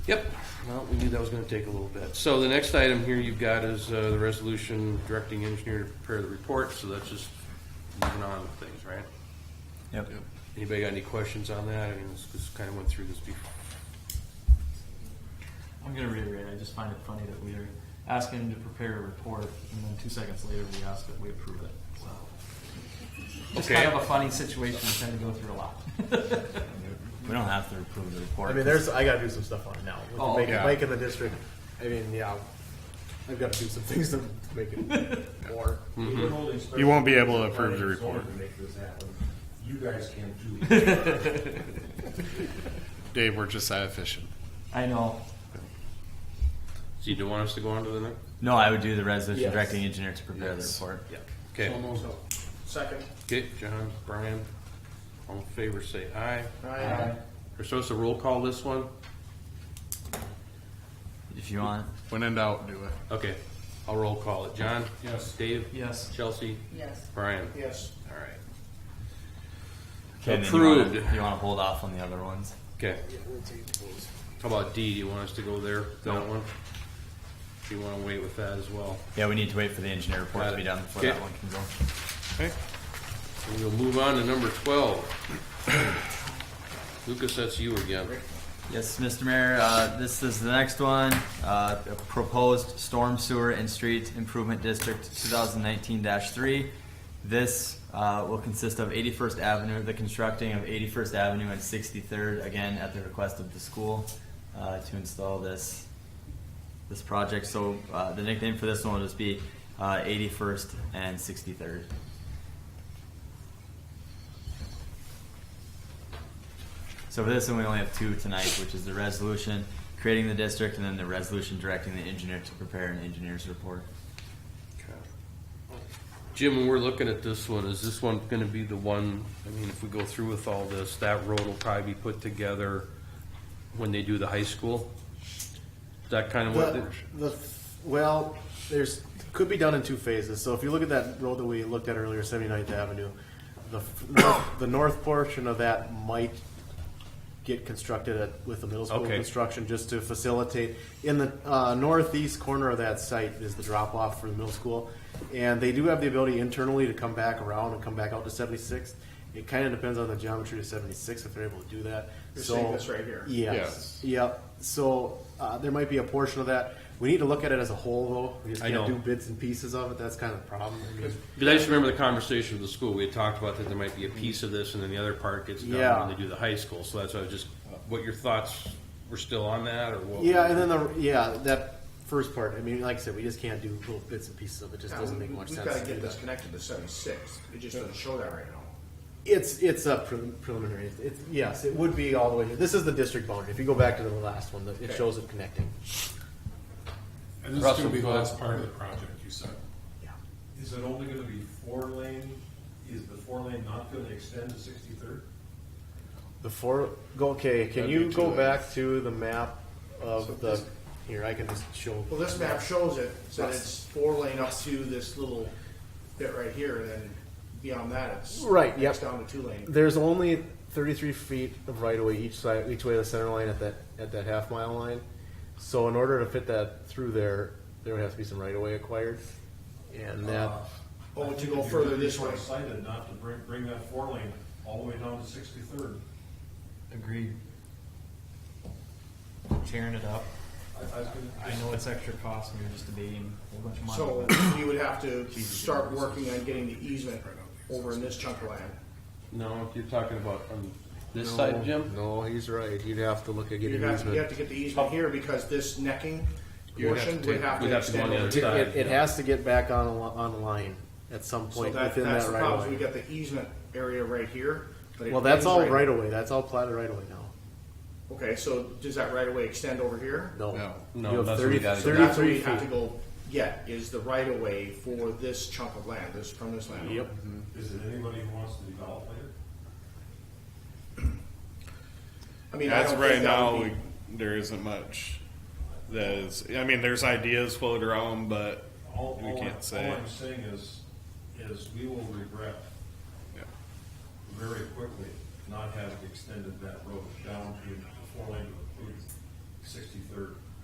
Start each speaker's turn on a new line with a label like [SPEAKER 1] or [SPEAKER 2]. [SPEAKER 1] Well, we knew that was gonna take a little bit. So the next item here you've got is uh, the resolution directing engineer to prepare the report, so that's just moving on with things, right?
[SPEAKER 2] Yep.
[SPEAKER 1] Anybody got any questions on that? I mean, this, this kinda went through this before.
[SPEAKER 2] I'm gonna reiterate, I just find it funny that we are asking him to prepare a report, and then two seconds later, we ask that we approve it, so. It's
[SPEAKER 1] Okay.
[SPEAKER 2] kind of a funny situation, we tend to go through a lot.
[SPEAKER 3] We don't have to approve the report.
[SPEAKER 4] I mean, there's I gotta do some stuff on it now. With
[SPEAKER 2] Oh,
[SPEAKER 4] the make,
[SPEAKER 1] yeah.
[SPEAKER 4] make in the district. I mean, yeah, I've got to do some things to make it more.
[SPEAKER 5] You won't be able to approve the report.
[SPEAKER 6] You guys can do it.
[SPEAKER 5] Dave, we're just that efficient.
[SPEAKER 2] I know,
[SPEAKER 1] So you do want us to go on to the next?
[SPEAKER 3] No, I would do the resolution
[SPEAKER 4] Yes.
[SPEAKER 3] directing engineer to prepare the report.
[SPEAKER 1] Okay,
[SPEAKER 4] Second.
[SPEAKER 1] okay, John, Brian, all in favor, say aye.
[SPEAKER 4] Aye.
[SPEAKER 1] We're supposed to roll call this one?
[SPEAKER 3] If you want,
[SPEAKER 5] When in doubt, do it.
[SPEAKER 1] Okay, I'll roll call it. John? Yes. Dave?
[SPEAKER 2] yes.
[SPEAKER 1] Chelsea?
[SPEAKER 7] Yes.
[SPEAKER 1] Brian?
[SPEAKER 4] Yes.
[SPEAKER 1] All right.
[SPEAKER 3] Okay, and then you wanna-
[SPEAKER 1] Approved.
[SPEAKER 3] You want to hold off on the other ones?
[SPEAKER 1] Okay. How about D? Do you want us to go there, that one? Do you want to wait with that as well?
[SPEAKER 3] Yeah, we need to wait for the engineer report
[SPEAKER 1] Got
[SPEAKER 3] to be
[SPEAKER 1] it.
[SPEAKER 3] done before
[SPEAKER 1] Okay.
[SPEAKER 3] that one can go.
[SPEAKER 5] Okay.
[SPEAKER 1] And we'll move on to number twelve. Lucas, that's you again.
[SPEAKER 3] Yes, Mr. Mayor, uh, this is the next one, uh, a proposed storm sewer and street improvement district two thousand nineteen three. This, uh, will consist of eighty-first Avenue, the constructing of eighty-first Avenue and sixty-third, again, at the request of the school, uh, to install this, this project. So, uh, the nickname for this one will just be, uh, eighty-first and sixty-third. So for this one, we only have two tonight, which is the resolution creating the district and then the resolution directing the engineer to prepare an engineer's report.
[SPEAKER 1] Jim, when we're looking at this one, is this one going to be the one, I mean, if we go through with all this, that road will probably be put together when they do the high school? Is that kind of what?
[SPEAKER 4] The,
[SPEAKER 1] they-
[SPEAKER 4] the well, there's could be done in two phases. So if you look at that road that we looked at earlier, 79th Avenue, the f- north, the north portion of that might get constructed at, with the middle school
[SPEAKER 1] Okay.
[SPEAKER 4] construction just to facilitate. In the uh, northeast corner of that site is the drop off for the middle school, and they do have the ability internally to come back around and come back out to 76th. It kind of depends on the geometry of 76 if they're able to do that.
[SPEAKER 6] You're
[SPEAKER 4] so
[SPEAKER 6] saying this right here?
[SPEAKER 4] Yes.
[SPEAKER 5] Yes.
[SPEAKER 4] Yep. So uh, there might be a portion of that. We need to look at it as a whole, though. We just
[SPEAKER 1] I
[SPEAKER 4] can't
[SPEAKER 1] know.
[SPEAKER 4] do bits and pieces of it. That's kind of the problem. I mean,
[SPEAKER 1] Because I just remember the conversation with the school, we had talked about that there might be a piece of this and then the other part gets done
[SPEAKER 4] Yeah.
[SPEAKER 1] when they do the high school, so that's why I was just, what your thoughts were still on that or what?
[SPEAKER 4] yeah, and then the yeah that first part. I mean, like I said, we just can't do little bits and pieces of it. Just doesn't make much
[SPEAKER 6] We've
[SPEAKER 4] sense.
[SPEAKER 6] gotta
[SPEAKER 4] to
[SPEAKER 6] get
[SPEAKER 4] do
[SPEAKER 6] this
[SPEAKER 4] that.
[SPEAKER 6] connected to seventy-six, it just doesn't show that right now.
[SPEAKER 4] It's it's a prelim- preliminary. It's, it's- yes, it would be all the way. Here. This is the district boundary. If you go back to the last one, it shows it connecting.
[SPEAKER 8] And this is
[SPEAKER 1] Russell,
[SPEAKER 8] gonna be the
[SPEAKER 1] go
[SPEAKER 8] last
[SPEAKER 1] ahead.
[SPEAKER 8] part of the project, you said.
[SPEAKER 4] Yeah.
[SPEAKER 9] Is it only gonna be four lane? Is the four lane not gonna extend to sixty-third?
[SPEAKER 4] Before go okay, can
[SPEAKER 5] That'd
[SPEAKER 4] you
[SPEAKER 5] be
[SPEAKER 4] go
[SPEAKER 5] too
[SPEAKER 4] back to the map of
[SPEAKER 6] So
[SPEAKER 4] the
[SPEAKER 6] this-
[SPEAKER 4] here? I can just show.
[SPEAKER 6] Well, this map shows it, so
[SPEAKER 4] Yes.
[SPEAKER 6] it's four lane up to this little bit right here, and then beyond that, it's.
[SPEAKER 4] Right, yep.
[SPEAKER 6] it's Down to two lane.
[SPEAKER 4] There's only 33 feet of right of way each side, each way of the center line at that at that half mile line. So in order to fit that through there, there would have to be some right of way acquired, and that
[SPEAKER 1] Ah.
[SPEAKER 6] Oh, to go further this way.
[SPEAKER 9] Decided not to bring, bring that four lane all the way down to sixty-third.
[SPEAKER 2] Agreed. Tearing it up. I know it's extra cost, and you're just debating a whole bunch of money.
[SPEAKER 6] So
[SPEAKER 2] but-
[SPEAKER 6] we would have to start working on getting the easement over in this chunk of land.
[SPEAKER 1] No, you're talking about on this side, Jim?
[SPEAKER 4] No, he's right. You'd have to look at
[SPEAKER 6] You
[SPEAKER 4] getting
[SPEAKER 6] have, you
[SPEAKER 4] easement.
[SPEAKER 6] have to get the easement here because this necking
[SPEAKER 5] You would have
[SPEAKER 6] portion
[SPEAKER 5] to
[SPEAKER 6] would
[SPEAKER 5] take-
[SPEAKER 6] have
[SPEAKER 1] we'd
[SPEAKER 6] to
[SPEAKER 1] have to go on
[SPEAKER 6] extend
[SPEAKER 1] the
[SPEAKER 6] over.
[SPEAKER 1] other
[SPEAKER 4] It,
[SPEAKER 1] side.
[SPEAKER 4] it, it has to get back on a, li- on a line at some
[SPEAKER 6] So
[SPEAKER 4] point
[SPEAKER 6] that,
[SPEAKER 4] within
[SPEAKER 6] that's
[SPEAKER 4] that
[SPEAKER 6] the
[SPEAKER 4] right
[SPEAKER 6] problem,
[SPEAKER 4] of
[SPEAKER 6] we
[SPEAKER 4] way.
[SPEAKER 6] got the easement area right here. but it
[SPEAKER 4] Well, that's
[SPEAKER 6] ends
[SPEAKER 4] all right of way. That's all platted right of way now.
[SPEAKER 6] Okay, so does that right of way extend over here?
[SPEAKER 4] No,
[SPEAKER 5] No.
[SPEAKER 1] No,
[SPEAKER 4] you have
[SPEAKER 1] that's what we
[SPEAKER 4] 30
[SPEAKER 1] gotta
[SPEAKER 6] So that's what
[SPEAKER 4] 33
[SPEAKER 6] we have to
[SPEAKER 4] feet.
[SPEAKER 6] go get, is the right of way for this chunk of land, this, from this land.
[SPEAKER 4] Yep.
[SPEAKER 8] Mm-hmm.
[SPEAKER 9] Is it anybody who wants to develop later?
[SPEAKER 6] I mean, I
[SPEAKER 5] That's
[SPEAKER 6] don't
[SPEAKER 5] right
[SPEAKER 6] think that
[SPEAKER 5] now,
[SPEAKER 6] would
[SPEAKER 5] we,
[SPEAKER 6] be,
[SPEAKER 5] there isn't much that is, I mean, there's ideas floated around, but
[SPEAKER 9] All,
[SPEAKER 5] we
[SPEAKER 9] all I'm-
[SPEAKER 5] can't say.
[SPEAKER 9] All I'm saying is, is we will regret
[SPEAKER 5] Yeah.
[SPEAKER 9] very quickly not having extended that road down to the four lane to sixty-third.